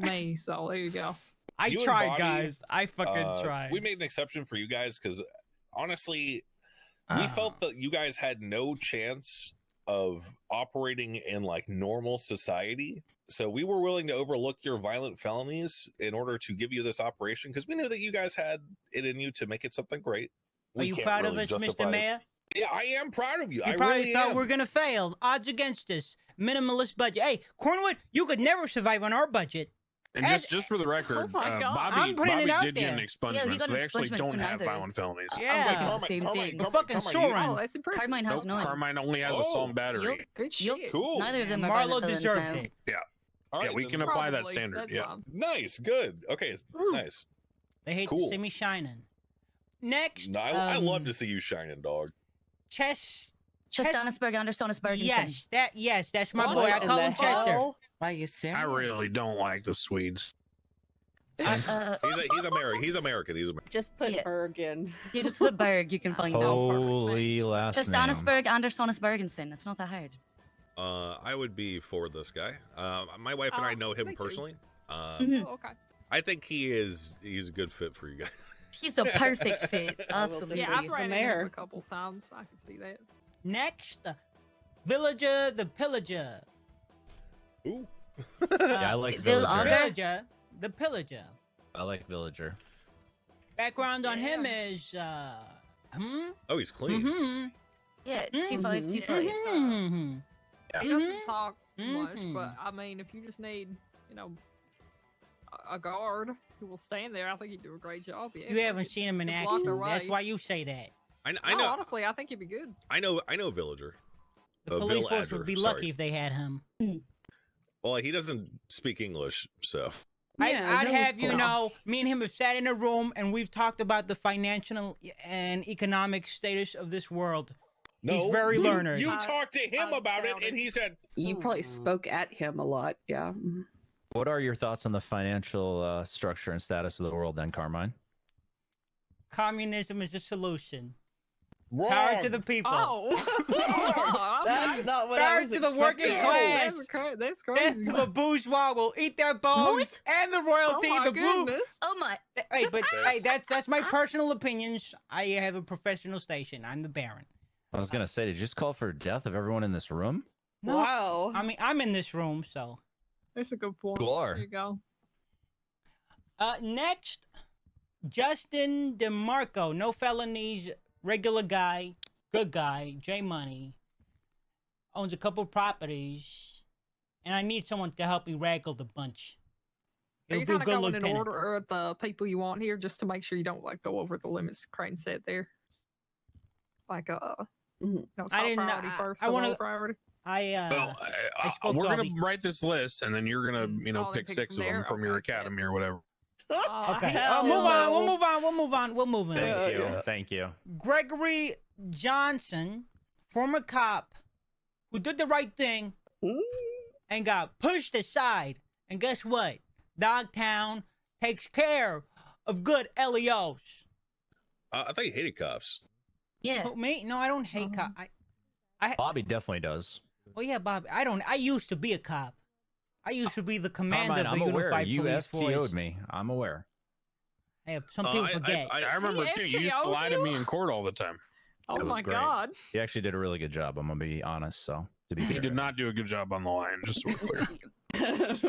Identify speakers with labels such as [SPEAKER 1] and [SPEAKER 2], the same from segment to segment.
[SPEAKER 1] May, so there you go.
[SPEAKER 2] I
[SPEAKER 3] You and
[SPEAKER 2] tried,
[SPEAKER 3] Bonnie,
[SPEAKER 2] guys. I fucking
[SPEAKER 3] Uh,
[SPEAKER 2] tried.
[SPEAKER 3] We made an exception for you guys because honestly, we
[SPEAKER 2] Ah.
[SPEAKER 3] felt that you guys had no chance of operating in like normal society. So we were willing to overlook your violent felonies in order to give you this operation because we knew that you guys had it in you to make it something great.
[SPEAKER 2] Are
[SPEAKER 3] We
[SPEAKER 2] you
[SPEAKER 3] can't
[SPEAKER 2] proud
[SPEAKER 3] really
[SPEAKER 2] of us,
[SPEAKER 3] justify
[SPEAKER 2] Mr.
[SPEAKER 3] it.
[SPEAKER 2] Mayor?
[SPEAKER 3] Yeah, I am proud of you.
[SPEAKER 2] You
[SPEAKER 3] I
[SPEAKER 2] probably
[SPEAKER 3] really
[SPEAKER 2] thought
[SPEAKER 3] am.
[SPEAKER 2] we're gonna fail. Odds against us. Minimalist budget. Hey, Cornwood, you could never survive on our budget.
[SPEAKER 4] And
[SPEAKER 2] Ed-
[SPEAKER 4] just, just for the record,
[SPEAKER 1] my
[SPEAKER 4] uh,
[SPEAKER 1] God.
[SPEAKER 4] Bobby,
[SPEAKER 2] I'm putting it
[SPEAKER 4] Bobby
[SPEAKER 2] out
[SPEAKER 4] did get
[SPEAKER 2] there.
[SPEAKER 4] an
[SPEAKER 5] Yeah,
[SPEAKER 4] expungement,
[SPEAKER 5] we got
[SPEAKER 4] so they
[SPEAKER 5] an
[SPEAKER 4] actually
[SPEAKER 5] expungement
[SPEAKER 4] don't
[SPEAKER 5] from
[SPEAKER 4] have
[SPEAKER 5] others.
[SPEAKER 4] violent felonies.
[SPEAKER 2] Yeah.
[SPEAKER 5] I was
[SPEAKER 2] Yeah.
[SPEAKER 5] thinking the
[SPEAKER 3] Carmine-
[SPEAKER 5] same
[SPEAKER 3] Carmine,
[SPEAKER 5] thing.
[SPEAKER 3] Carmine,
[SPEAKER 2] fucking
[SPEAKER 3] Carmine, you-
[SPEAKER 2] Soren.
[SPEAKER 1] Oh, that's impressive.
[SPEAKER 5] Carmine has
[SPEAKER 4] Nope,
[SPEAKER 5] none.
[SPEAKER 4] Carmine only has
[SPEAKER 3] Oh,
[SPEAKER 4] a song battery.
[SPEAKER 5] Yup.
[SPEAKER 1] Great shit.
[SPEAKER 5] Yup.
[SPEAKER 3] Cool.
[SPEAKER 5] Neither of them are
[SPEAKER 2] Marlo
[SPEAKER 5] violent
[SPEAKER 2] deserved
[SPEAKER 5] felons now.
[SPEAKER 2] it.
[SPEAKER 3] All
[SPEAKER 4] Yeah, we
[SPEAKER 3] then.
[SPEAKER 4] can apply that
[SPEAKER 1] Probably,
[SPEAKER 4] standard,
[SPEAKER 1] that's
[SPEAKER 4] yeah.
[SPEAKER 1] fine.
[SPEAKER 3] Nice, good. Okay, it's
[SPEAKER 5] Ooh.
[SPEAKER 3] nice.
[SPEAKER 2] They hate
[SPEAKER 3] Cool.
[SPEAKER 2] to see me shining. Next,
[SPEAKER 3] No, I, I
[SPEAKER 2] um,
[SPEAKER 3] love to see you shining, dog.
[SPEAKER 2] Chess.
[SPEAKER 5] Chestanusberg, Andersonisberg, and
[SPEAKER 2] Yes, that yes, that's my
[SPEAKER 1] What
[SPEAKER 2] boy. I
[SPEAKER 1] in
[SPEAKER 2] call
[SPEAKER 1] the
[SPEAKER 2] him Chester.
[SPEAKER 1] hell?
[SPEAKER 6] Are you serious?
[SPEAKER 4] I really don't like the Swedes.
[SPEAKER 5] Singh. Uh,
[SPEAKER 3] He's a, he's American. He's American. He's American.
[SPEAKER 7] Just put
[SPEAKER 5] Yeah.
[SPEAKER 7] Berg in.
[SPEAKER 5] you just put Berg, you can find out.
[SPEAKER 8] Holy last name.
[SPEAKER 5] Chestanusberg, Andersonisbergensen. It's not that hard.
[SPEAKER 3] Uh, I would be for this guy. Uh, my wife and I
[SPEAKER 1] Oh,
[SPEAKER 3] know
[SPEAKER 1] me
[SPEAKER 3] him
[SPEAKER 1] too.
[SPEAKER 3] personally.
[SPEAKER 2] Mm-hmm.
[SPEAKER 3] Uh,
[SPEAKER 5] Mhm.
[SPEAKER 1] Oh, okay.
[SPEAKER 3] I think he is he's a good fit for you guys.
[SPEAKER 5] He's a perfect fit.
[SPEAKER 3] I will
[SPEAKER 5] Absolutely.
[SPEAKER 1] Yeah, I've
[SPEAKER 7] the
[SPEAKER 1] ran into
[SPEAKER 7] mayor.
[SPEAKER 1] him a couple times. I can see that.
[SPEAKER 2] Next, uh, villager the pillager.
[SPEAKER 3] Ooh,
[SPEAKER 2] Uh,
[SPEAKER 8] Yeah, I like
[SPEAKER 5] Vil
[SPEAKER 8] villager.
[SPEAKER 5] Auger?
[SPEAKER 2] villager the pillager.
[SPEAKER 8] I like villager.
[SPEAKER 2] Background on him
[SPEAKER 1] Yeah.
[SPEAKER 2] is uh, hmm,
[SPEAKER 3] oh, he's clean.
[SPEAKER 2] hmm,
[SPEAKER 5] Yeah,
[SPEAKER 2] Mhm.
[SPEAKER 5] two five, two five.
[SPEAKER 2] hmm.
[SPEAKER 8] Yeah.
[SPEAKER 1] He
[SPEAKER 2] Mm-hmm.
[SPEAKER 1] doesn't talk much,
[SPEAKER 2] Mhm.
[SPEAKER 1] but I mean, if you just need, you know, a- a guard who will stand there, I think he'd do a great job. Yeah,
[SPEAKER 2] You haven't seen him in
[SPEAKER 1] Just walk
[SPEAKER 2] action. That's
[SPEAKER 1] away.
[SPEAKER 2] why you say that.
[SPEAKER 3] I,
[SPEAKER 1] I
[SPEAKER 3] I
[SPEAKER 2] Oh,
[SPEAKER 3] know.
[SPEAKER 1] honestly, I think he'd be good.
[SPEAKER 3] I know. I know. Villager.
[SPEAKER 2] The
[SPEAKER 3] Uh,
[SPEAKER 2] police
[SPEAKER 3] Bill
[SPEAKER 2] force
[SPEAKER 3] Adger,
[SPEAKER 2] would be
[SPEAKER 3] sorry.
[SPEAKER 2] lucky if they had him.
[SPEAKER 3] Well, he doesn't speak English, so
[SPEAKER 7] Yeah,
[SPEAKER 2] I, I'd
[SPEAKER 7] that was
[SPEAKER 2] have you
[SPEAKER 7] cool.
[SPEAKER 2] know, me and him have sat in a room and we've talked about the financial and economic status of this world. He's very
[SPEAKER 3] you-
[SPEAKER 2] learned.
[SPEAKER 3] You
[SPEAKER 1] I-
[SPEAKER 3] talked to him
[SPEAKER 1] I
[SPEAKER 3] about it,
[SPEAKER 1] doubt
[SPEAKER 3] and
[SPEAKER 1] it.
[SPEAKER 3] he said,
[SPEAKER 7] You probably spoke at him a lot. Yeah.
[SPEAKER 8] What are your thoughts on the financial uh, structure and status of the world, then, Carmine?
[SPEAKER 2] Communism is the solution.
[SPEAKER 3] "Wrong."
[SPEAKER 2] Power to the people.
[SPEAKER 1] Oh, Oh, okay.
[SPEAKER 7] That's not what I
[SPEAKER 2] Power
[SPEAKER 7] was
[SPEAKER 2] to the working
[SPEAKER 7] expecting.
[SPEAKER 2] class.
[SPEAKER 1] that's, cra- that's
[SPEAKER 2] Death
[SPEAKER 1] crazy.
[SPEAKER 2] to the bourgeois will eat their bones
[SPEAKER 5] What?
[SPEAKER 2] and the
[SPEAKER 1] oh
[SPEAKER 2] royalty.
[SPEAKER 1] my
[SPEAKER 2] the blue.
[SPEAKER 1] goodness.
[SPEAKER 5] Oh my!
[SPEAKER 2] Th- Hey, but
[SPEAKER 3] Yes.
[SPEAKER 2] hey, that's that's my personal opinions. I have a professional station. I'm the Baron.
[SPEAKER 8] I was gonna say, did you just call for death of everyone in this room?
[SPEAKER 2] No,
[SPEAKER 7] Wow.
[SPEAKER 2] I mean I'm in this room. So
[SPEAKER 1] That's a good point.
[SPEAKER 8] You are.
[SPEAKER 1] There you go.
[SPEAKER 2] uh, next, Justin DeMarco, no felonies, regular guy, good guy, J Money, owns a couple properties, and I need someone to help me raggle the bunch.
[SPEAKER 1] Are
[SPEAKER 2] He'll
[SPEAKER 1] you
[SPEAKER 2] do
[SPEAKER 1] kind of
[SPEAKER 2] good
[SPEAKER 1] going in
[SPEAKER 2] lieutenant.
[SPEAKER 1] order of the people you want here, just to make sure you don't like go over the limits Crane said there? Like uh,
[SPEAKER 7] Mm-hmm.
[SPEAKER 1] you know, top
[SPEAKER 2] didn't know-
[SPEAKER 1] priority
[SPEAKER 2] I-
[SPEAKER 1] first,
[SPEAKER 2] I
[SPEAKER 1] to low
[SPEAKER 2] wanna-
[SPEAKER 1] priority.
[SPEAKER 2] I uh,
[SPEAKER 4] Well,
[SPEAKER 2] I
[SPEAKER 4] I, I,
[SPEAKER 2] spoke
[SPEAKER 4] we're
[SPEAKER 2] to all
[SPEAKER 4] gonna
[SPEAKER 2] these-
[SPEAKER 4] write this list, and then you're gonna,
[SPEAKER 1] Mm,
[SPEAKER 4] you know,
[SPEAKER 1] oh, then
[SPEAKER 4] pick
[SPEAKER 1] pick
[SPEAKER 4] six of
[SPEAKER 1] from
[SPEAKER 4] them
[SPEAKER 1] there?
[SPEAKER 4] from your
[SPEAKER 1] Okay, yeah.
[SPEAKER 4] academy or whatever.
[SPEAKER 1] Oh,
[SPEAKER 2] okay.
[SPEAKER 1] hell
[SPEAKER 2] Uh, move on. We'll
[SPEAKER 7] no.
[SPEAKER 2] move on. We'll move on. We'll move on.
[SPEAKER 8] Thank
[SPEAKER 7] Yeah,
[SPEAKER 8] you,
[SPEAKER 7] yeah.
[SPEAKER 8] thank you.
[SPEAKER 2] Gregory Johnson, former cop, who did the right thing and got pushed aside. And guess what? Dogtown takes care of good E LEOs.
[SPEAKER 3] Uh, I thought he hated cops.
[SPEAKER 5] Yeah,
[SPEAKER 2] Who, me? No, I don't
[SPEAKER 5] Mm-hmm.
[SPEAKER 2] hate cop. I,
[SPEAKER 8] Bobby definitely does.
[SPEAKER 2] oh yeah, Bob. I don't. I used to be a cop. I used to be the commander
[SPEAKER 8] Carmine,
[SPEAKER 2] of
[SPEAKER 8] I'm
[SPEAKER 2] the
[SPEAKER 8] aware.
[SPEAKER 2] Unified
[SPEAKER 8] You
[SPEAKER 2] Police Force.
[SPEAKER 8] FTO'd me. I'm aware.
[SPEAKER 2] Hey, some
[SPEAKER 3] Uh,
[SPEAKER 2] people
[SPEAKER 3] I- I-
[SPEAKER 2] forget.
[SPEAKER 3] I-
[SPEAKER 4] I remember
[SPEAKER 1] He
[SPEAKER 4] too. You used to lie to
[SPEAKER 1] FTO'd
[SPEAKER 4] me
[SPEAKER 1] you?
[SPEAKER 4] in court all the time.
[SPEAKER 1] Oh
[SPEAKER 8] That was
[SPEAKER 1] my
[SPEAKER 8] great.
[SPEAKER 1] god.
[SPEAKER 8] He actually did a really good job. I'm gonna be honest. So to be
[SPEAKER 4] He
[SPEAKER 8] fair.
[SPEAKER 4] did not do a good job on the line. Just so we're clear.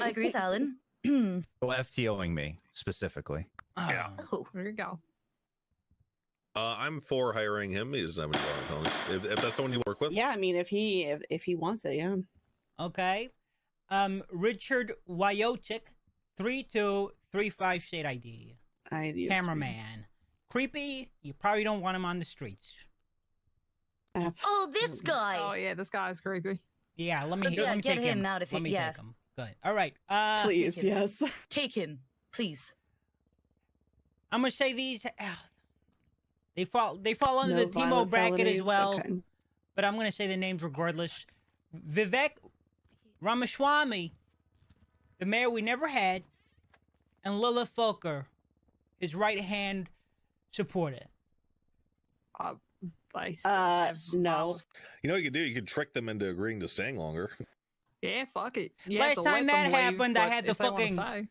[SPEAKER 5] I agree with Alan.
[SPEAKER 8] Well, FTOing me specifically.
[SPEAKER 4] yeah.
[SPEAKER 2] Oh.
[SPEAKER 5] oh,
[SPEAKER 1] There you go.
[SPEAKER 3] Uh, I'm for hiring him. He doesn't have any violent felonies. If, if that's someone you work with,
[SPEAKER 7] yeah, I mean, if he if, if he wants it, yeah.
[SPEAKER 2] Okay. Um, Richard Wyotic, 3235 state ID.
[SPEAKER 7] I, yes,
[SPEAKER 2] Cameraman. Creepy. You probably don't want him on the streets.
[SPEAKER 7] we- Abs-
[SPEAKER 5] oh, this
[SPEAKER 1] Oh
[SPEAKER 5] guy.
[SPEAKER 1] yeah, this guy's creepy.
[SPEAKER 2] Yeah, let me,
[SPEAKER 5] Yeah,
[SPEAKER 2] let me
[SPEAKER 5] get
[SPEAKER 2] take
[SPEAKER 5] him out of
[SPEAKER 2] let
[SPEAKER 5] here,
[SPEAKER 2] me
[SPEAKER 5] yeah.
[SPEAKER 2] take him. Good. All right. Uh,
[SPEAKER 7] Please,
[SPEAKER 5] chicken.
[SPEAKER 7] yes.
[SPEAKER 5] Take him, please.
[SPEAKER 2] I'm gonna say these. ah, they fall. They fall under
[SPEAKER 7] No
[SPEAKER 2] the Timo
[SPEAKER 7] violent
[SPEAKER 2] bracket as
[SPEAKER 7] felonies,
[SPEAKER 2] well.
[SPEAKER 7] okay.
[SPEAKER 2] But I'm gonna say the names regardless. Vivek Ramaswamy, the mayor we never had, and Lila Foker, his right hand supporter.
[SPEAKER 1] Uh, they still
[SPEAKER 7] Uh,
[SPEAKER 1] have
[SPEAKER 7] no.
[SPEAKER 1] problems.
[SPEAKER 3] you know what you could do. You could trick them into agreeing to staying longer.
[SPEAKER 1] Yeah, fuck it. You
[SPEAKER 2] Last
[SPEAKER 1] have to let
[SPEAKER 2] time that
[SPEAKER 1] them leave,
[SPEAKER 2] happened, I
[SPEAKER 1] but
[SPEAKER 2] had the
[SPEAKER 1] if they wanna
[SPEAKER 2] fucking-
[SPEAKER 1] stay-